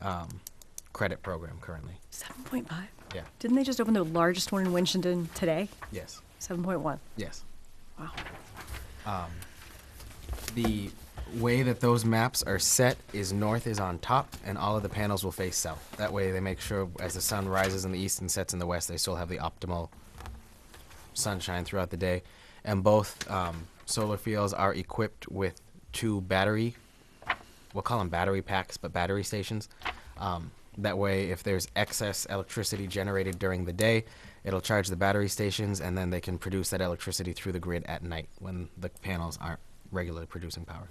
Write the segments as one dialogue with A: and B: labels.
A: um, credit program currently.
B: 7.5?
A: Yeah.
B: Didn't they just open the largest one in Winchendon today?
A: Yes.
B: 7.1.
A: Yes.
B: Wow.
A: The way that those maps are set is north is on top, and all of the panels will face south. That way, they make sure as the sun rises in the east and sets in the west, they still have the optimal sunshine throughout the day. And both um, solar fields are equipped with two battery, we'll call them battery packs, but battery stations. Um, that way, if there's excess electricity generated during the day, it'll charge the battery stations, and then they can produce that electricity through the grid at night when the panels aren't regularly producing power.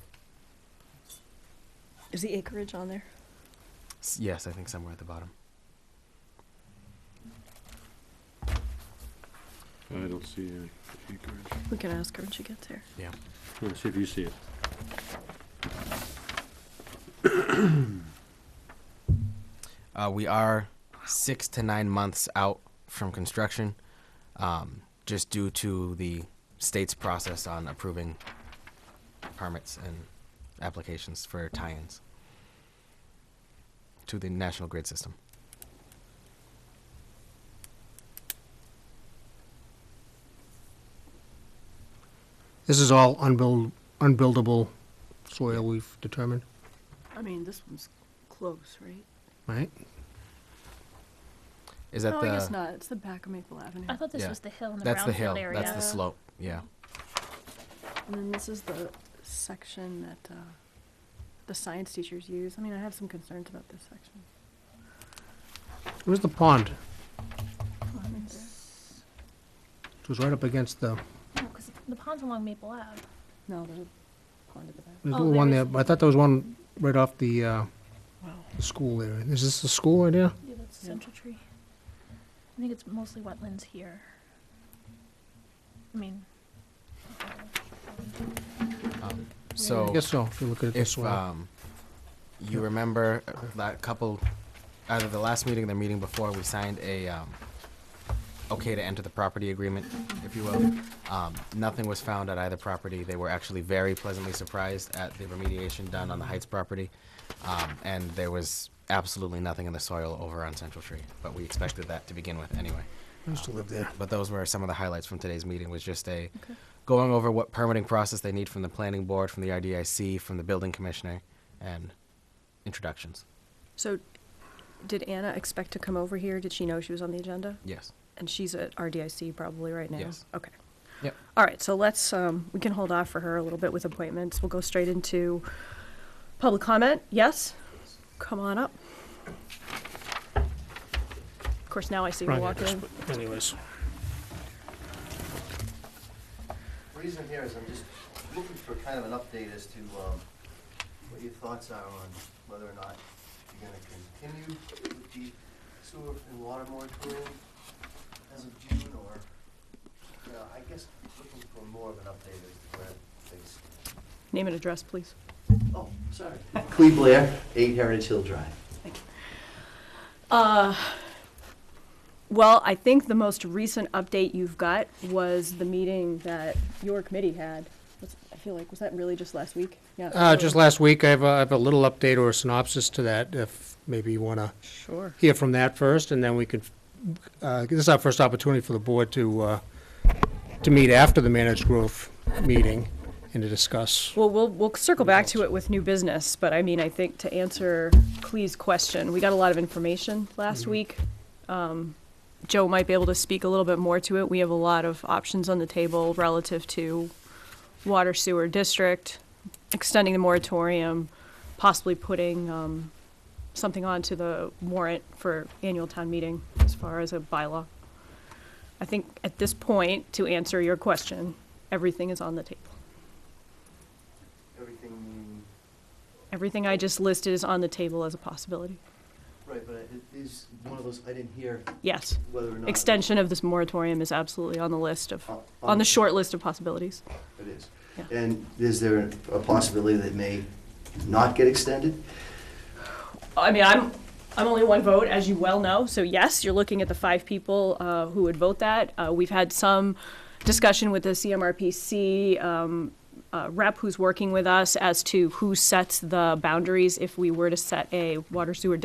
B: Is the acreage on there?
A: S- Yes, I think somewhere at the bottom.
C: I don't see any acreage.
B: We can ask her when she gets here.
A: Yeah.
C: Let's see if you see it.
A: Uh, we are six to nine months out from construction, um, just due to the state's process on approving permits and applications for tie-ins to the national grid system.
D: This is all unbuild, unbuildable soil we've determined,
E: I mean, this one's close, right?
D: right?
A: Is that
E: no,
A: the?
E: Oh, I guess not. It's the back of Maple Avenue.
F: I thought this
A: Yeah.
F: was the hill in the
A: That's the
F: brownfield
A: hill.
F: area.
A: That's the slope. Yeah.
E: And then this is the section that uh, the science teachers use. I mean, I have some concerns about this section.
D: Where's the pond?
E: Oh, I mean, there-
D: It was right up against the,
F: No, 'cause the pond's along Maple Ave.
E: No, there's a pond at the back.
D: there's a
F: Oh,
D: little one
F: there
D: there,
F: is-
D: but I thought there was one right off the, uh,
E: Wow.
D: the school there. Is this the school right there?
F: Yeah, that's the
E: Yeah.
F: Central Tree. I think it's mostly wetlands here. I mean,
A: Um, so.
D: I guess so, if you look at it this
A: If
D: way.
A: um, you remember uh, that couple, either the last meeting or the meeting before, we signed a um, okay to enter the property agreement, if you will. Um, nothing was found at either property. They were actually very pleasantly surprised at the remediation done on the Heights property, um, and there was absolutely nothing in the soil over on Central Tree. But we expected that to begin with anyway.
D: I used to live there.
A: But those were some of the highlights from today's meeting, was just a, going over what permitting process they need from the planning board, from the RDIC, from the building commissioner, and introductions.
B: So, did Anna expect to come over here? Did she know she was on the agenda?
A: Yes.
B: And she's at RDIC probably right now?
A: Yes.
B: Okay.
A: Yep.
B: All right, so let's, um, we can hold off for her a little bit with appointments. We'll go straight into public comment. Yes? Come on up. Of course, now I see her
D: Right,
B: walk in.
D: Anyways.
G: Reason here is I'm just looking for kind of an update as to um, what your thoughts are on whether or not you're gonna continue with the sewer and water moratorium as of June, or, you know, I guess looking for more of an update as to where things.
B: Name and address, please.
G: Oh, sorry. Cleve Blair, Eight Heritage Hill Drive.
B: Uh, well, I think the most recent update you've got was the meeting that your committee had. Was- I feel like, was that really just last week? Yeah.
D: Uh,
B: so-
D: just last week, I have, a- I have a little update or a synopsis to that, if maybe you wanna
B: Sure.
D: hear from that first, and then we could, uh, this is our first opportunity for the board to, uh, to meet after the managed growth meeting and to discuss.
B: Well, we'll, we'll circle back to it with new business, but I mean, I think to answer Clee's question, we got a lot of information last week. Um, Joe might be able to speak a little bit more to it. We have a lot of options on the table relative to water sewer district, extending the moratorium, possibly putting, um, something onto the warrant for annual town meeting as far as a bylaw. I think at this point, to answer your question, everything is on the table.
G: Everything,
B: Everything I just listed is on the table as a possibility.
G: right, but it is one of those, I didn't hear
B: Yes.
G: whether or not.
B: Extension of this moratorium is absolutely on the list of,
G: On-
B: on the short list of possibilities.
G: It is.
B: Yeah.
G: And is there a possibility that it may not get extended?
B: I mean, I'm, I'm only one vote, as you well know, so yes, you're looking at the five people uh, who would vote that. Uh, We've had some discussion with the CMRPC um, uh, rep who's working with us as to who sets the boundaries if we were to set a water sewer